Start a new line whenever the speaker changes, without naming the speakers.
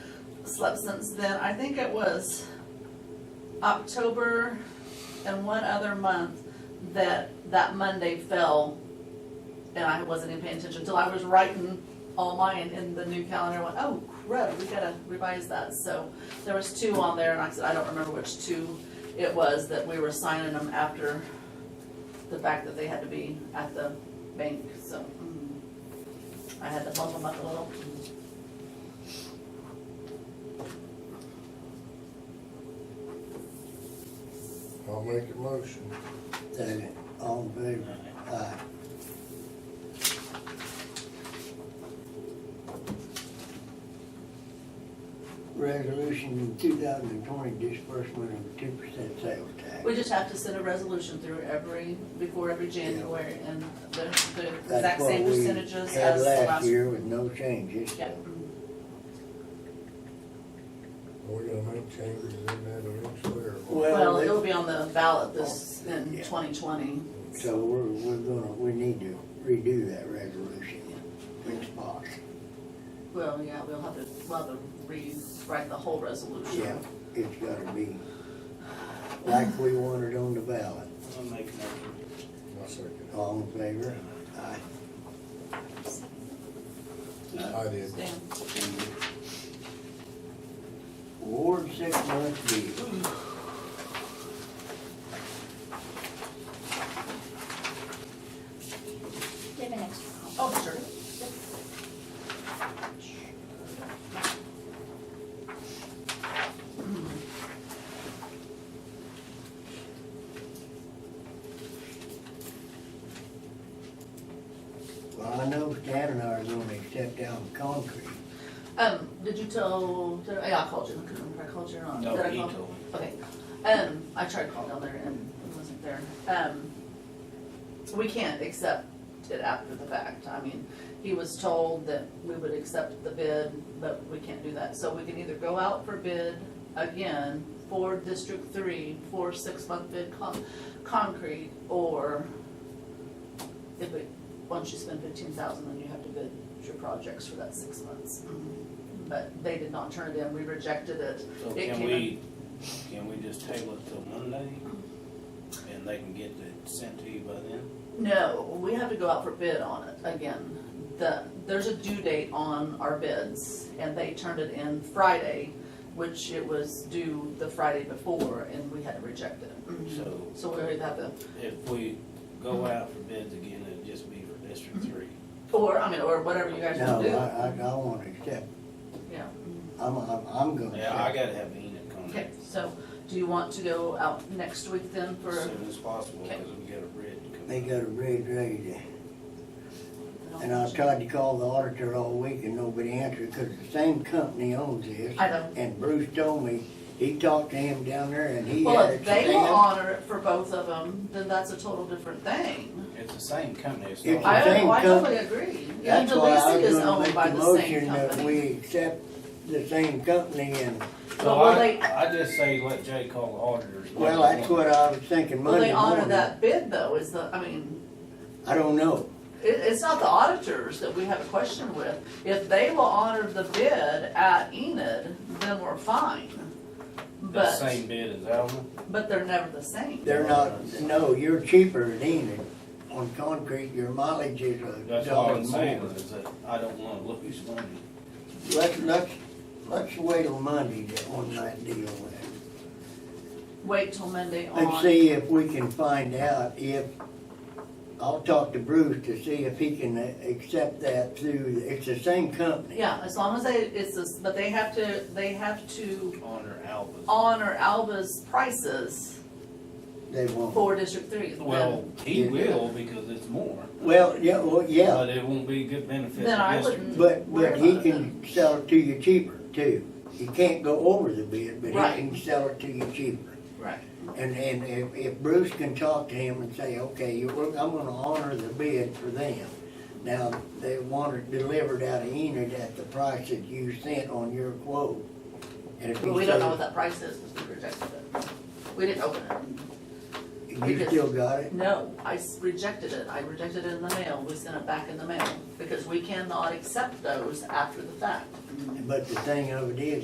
slept since then. I think it was October and one other month that that Monday fell. And I wasn't even paying attention until I was writing all mine in the new calendar. I went, oh crud, we gotta revise that. So there was two on there and I said, I don't remember which two it was that we were signing them after the fact that they had to be at the bank, so. mm, I had to bump them up a little.
I'll make a motion.
Second, all in favor? Aye. Resolution two thousand and twenty disbursement of two percent sales tax.
We just have to send a resolution through every, before every January, and the, the
That's
exact
what
same
we
percentages
had
as last. year.
year with no changes.
Yeah.
We're gonna make changes in that eventually, or what?
Well,
Well,
they- Oh,
it'll be on the ballot this, in
Yeah.
twenty twenty.
so we're, we're gonna, we need to redo that resolution in spot.
Well, yeah, we'll have to, we'll have to rewrite the whole resolution.
Yeah, it's gotta be like we wanted on the ballot.
I'll make a motion.
I'll second it.
All in favor? Aye.
I did.
Stan,
Ward six month deed.
Do you have an extra?
oh, sure.
Well, I know Stan and I are gonna accept down concrete.
Um, did you tell, did, I- yeah, I called you, I couldn't remember if I called you or not.
No,
Did I
he
call?
told me.
Okay, um, I tried calling down there and it wasn't there. Um, we can't accept it after the fact. I mean, he was told that we would accept the bid, but we can't do that. So we can either go out for bid again for District Three, for six-month bid con- concrete, or if it, once you spend fifteen thousand, then you have to bid your projects for that six months. But they did not turn it in, we rejected it.
Mm-hmm. So
It
can
came
we, can we just table it till Monday? And they can get it sent to you by then?
No, we have to go out for bid on it again. The, there's a due date on our bids, and they turned it in Friday, which it was due the Friday before, and we had to reject it.
Mm-hmm.
So
So we would have to,
if we go out for bids again, it'd just be for District Three.
or, I mean, or whatever you guys
No,
want to do.
I, I, I wanna accept,
Yeah,
I'm, I'm, I'm gonna
Yeah, I
accept.
gotta have Enid
okay,
contact
so do you want to go out next week then for,
as
I
soon as possible,
Okay.
because we got a bid
They
coming.
got a bridge ready to,
don't-
and I tried to call the auditor all week and nobody answered, cause the same company owns this.
I know.
And Bruce told me, he talked to him down there and he
Well,
had
if
it
they will
stamped.
honor it for both of them, then that's a total different thing.
It's the same company, it's
It's
not.
the
I,
same
I
company.
totally agree. Yeah,
That's why I
Delisi
was
is
gonna
owned
make
by
the
the same
motion that
company.
we accept the same company and,
So
Well,
I,
they-
I just say let Jay call the auditors.
well, that's what I was thinking
Will they
Monday
honor
morning.
that bid though, is the, I mean,
I don't know.
it, it's not the auditors that we have a question with. If they will honor the bid at Enid, then we're fine.
The
But,
same bid as Alma?
but they're never the same.
They're not, no, you're cheaper than Enid. On concrete, your mileage is a
That's all
dollar
I'm saying,
more.
is that I don't wanna lose money.
Let's, let's, let's wait till Monday to- on that deal then.
Wait till Monday
Let's
on,
see if we can find out if, I'll talk to Bruce to see if he can accept that through, it's the same company.
yeah, as long as they, it's, this- but they have to, they have to
Honor Alba's.
honor Alba's prices
They won't.
for District Three. then-
Well, he
Yeah.
will because it's more,
Well, yeah, well, yeah,
but it won't be good benefit
Then I
to district.
wouldn't-
but, but he can sell it to you cheaper too. He can't go over the bid, but
Right.
he can sell it to you cheaper.
Right.
And, and if, if Bruce can talk to him and say, okay, you, we're- I'm gonna honor the bid for them. Now, they want it delivered out of Enid at the price that you sent on your quote. And if he
But we don't know what
says,
that price is, because we rejected it. We didn't open it.
You still got it?
No, I s- rejected it. I rejected it in the mail. We sent it back in the mail, because we cannot accept those after the fact.
But the thing of it is,